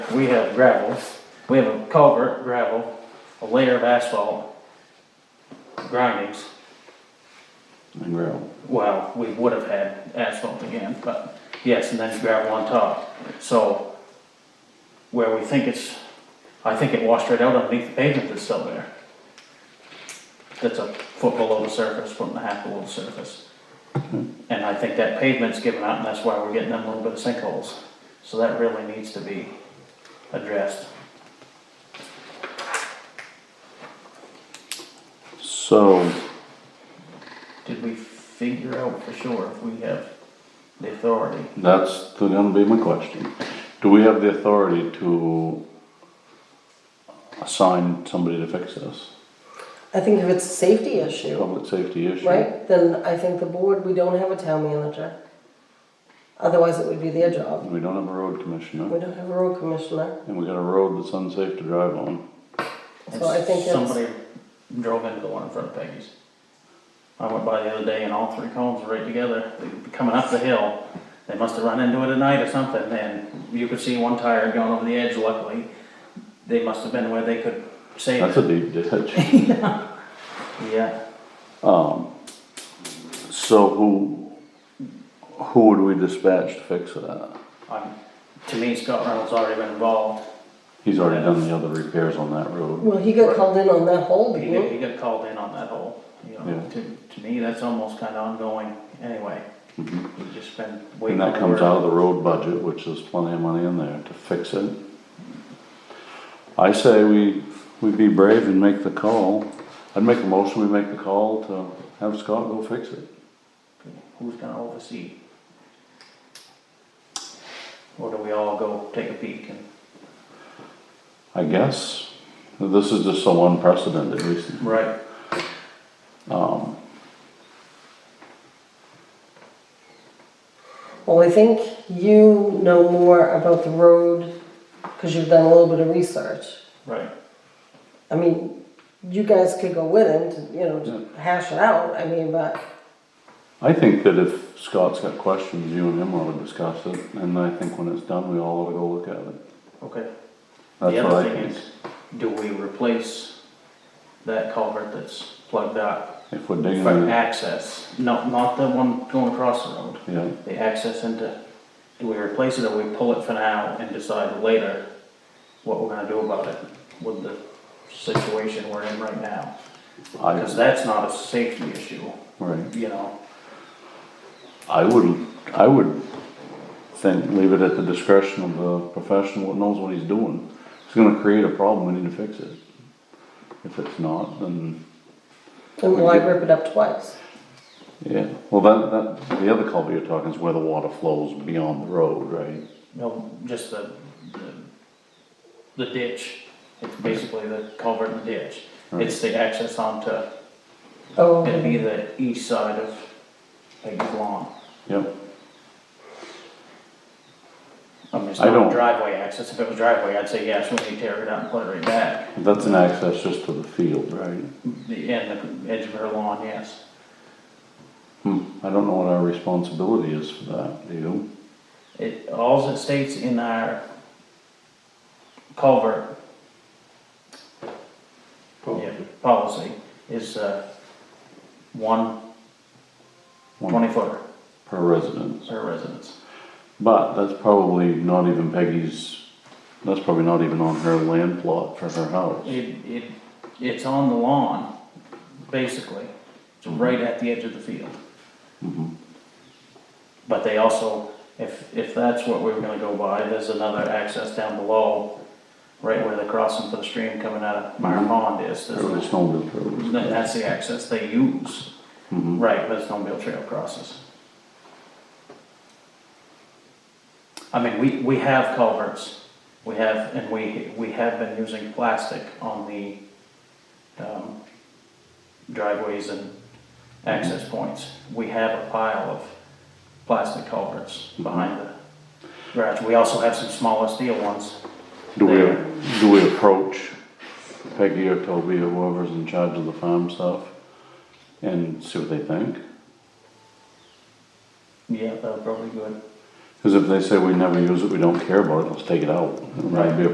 we have gravel, we have a culvert, gravel, a layer of asphalt, grindings. and gravel. Well, we would have had asphalt again, but yes, and then gravel on top. So where we think it's, I think it washed right out underneath the pavement that's still there. That's a foot below the surface, foot and a half below the surface. And I think that pavement's given out and that's why we're getting them little bit of sinkholes. So that really needs to be addressed. So, Did we figure out for sure if we have the authority? that's gonna be my question. Do we have the authority to assign somebody to fix this? I think if it's a safety issue, Public safety issue? right, then I think the board, we don't have a town manager. Otherwise, it would be their job. We don't have a road We commissioner, don't have a road commissioner. and we got a road that's unsafe to drive on. So I think it's- Somebody drove into the one in front of Peggy's. I went by the other day and all three cones were right together, They were coming up the hill. They must have run into it at night or something, and you could see one tire going over the edge luckily. They must have been where they could save That's a it. deep ditch. Yeah, Um, so who, who would we dispatch to fix that? I'm, to me Scott Reynolds already been involved. He's already done the other repairs on that road. Well, he got called in on that hole, He didn't got, he? he got called in on that hole, you know, Yeah. to, to me, that's almost kinda ongoing anyway. Mhm. You've just been waiting. And that comes for- out of the road budget, which is plenty of money in there to fix it. I say we, we be brave and make the call. I'd make a motion, we make the call to have Scott go fix it. Who's gonna oversee? Or do we all go take a peek and? I guess, this is just so unprecedented recently. Right. Um, Well, I think you know more about the road because you've done a little bit of research. Right, I mean, you guys could go with him to, you know, to hash it out. I mean, but I think that if Scott's got questions, you and him ought to discuss it, and I think when it's done, we all ought to go look at it. okay. The That's what other I thing think. is, do we replace that culvert that's plugged up If we're digging for it, access? No, not the one going across the road, yeah, the access into, do we replace it or we pull it for now and decide later what we're gonna do about it with the situation we're in right now? I, Because that's not a safety issue, right. you know? I would, I would think, leave it at the discretion of the professional that knows what he's doing. If it's gonna create a problem, we need to fix it. If it's not, then, then why rip it up twice? yeah, well, that, that, the other culvert you're talking is where the water flows beyond the road, right? No, just the, the- the ditch, it's basically the culvert and the ditch. It's the access onto, Oh, it'd be the east side of Peggy's lawn. Yep, I mean, it's I not don't- driveway access, if it was driveway, I'd say yes, when you tear it out and put it right back. that's an access just to the field, right? The, and the edge of her lawn, yes. Hmm, I don't know what our responsibility is for that, do you? It, alls it states in our culvert yeah, policy is, uh, one One twenty footer per residence. per residence. But that's probably not even Peggy's, that's probably not even on her land plot for her house. It, it, it's on the lawn, basically. It's right at the edge of the field. Mhm. But they also, if, if that's what we were gonna go by, there's another access down below, right where the crossing for the stream coming out of Meyer Mhm. Pond is. There's- Or the snowmobile trails. that- That's the access they use. Mhm. Right, but it's snowmobile trail crosses. I mean, we, we have culverts, we have, and we, we have been using plastic on the, um, driveways and access points. We have a pile of plastic culverts behind the garage. We also have some smaller steel ones. Do we, do we approach Peggy or Toby or whoever's in charge of the farm stuff and see what they think? Yeah, that would probably be good. Cause if they say we never use it, we don't care about it, let's take it out. It might be a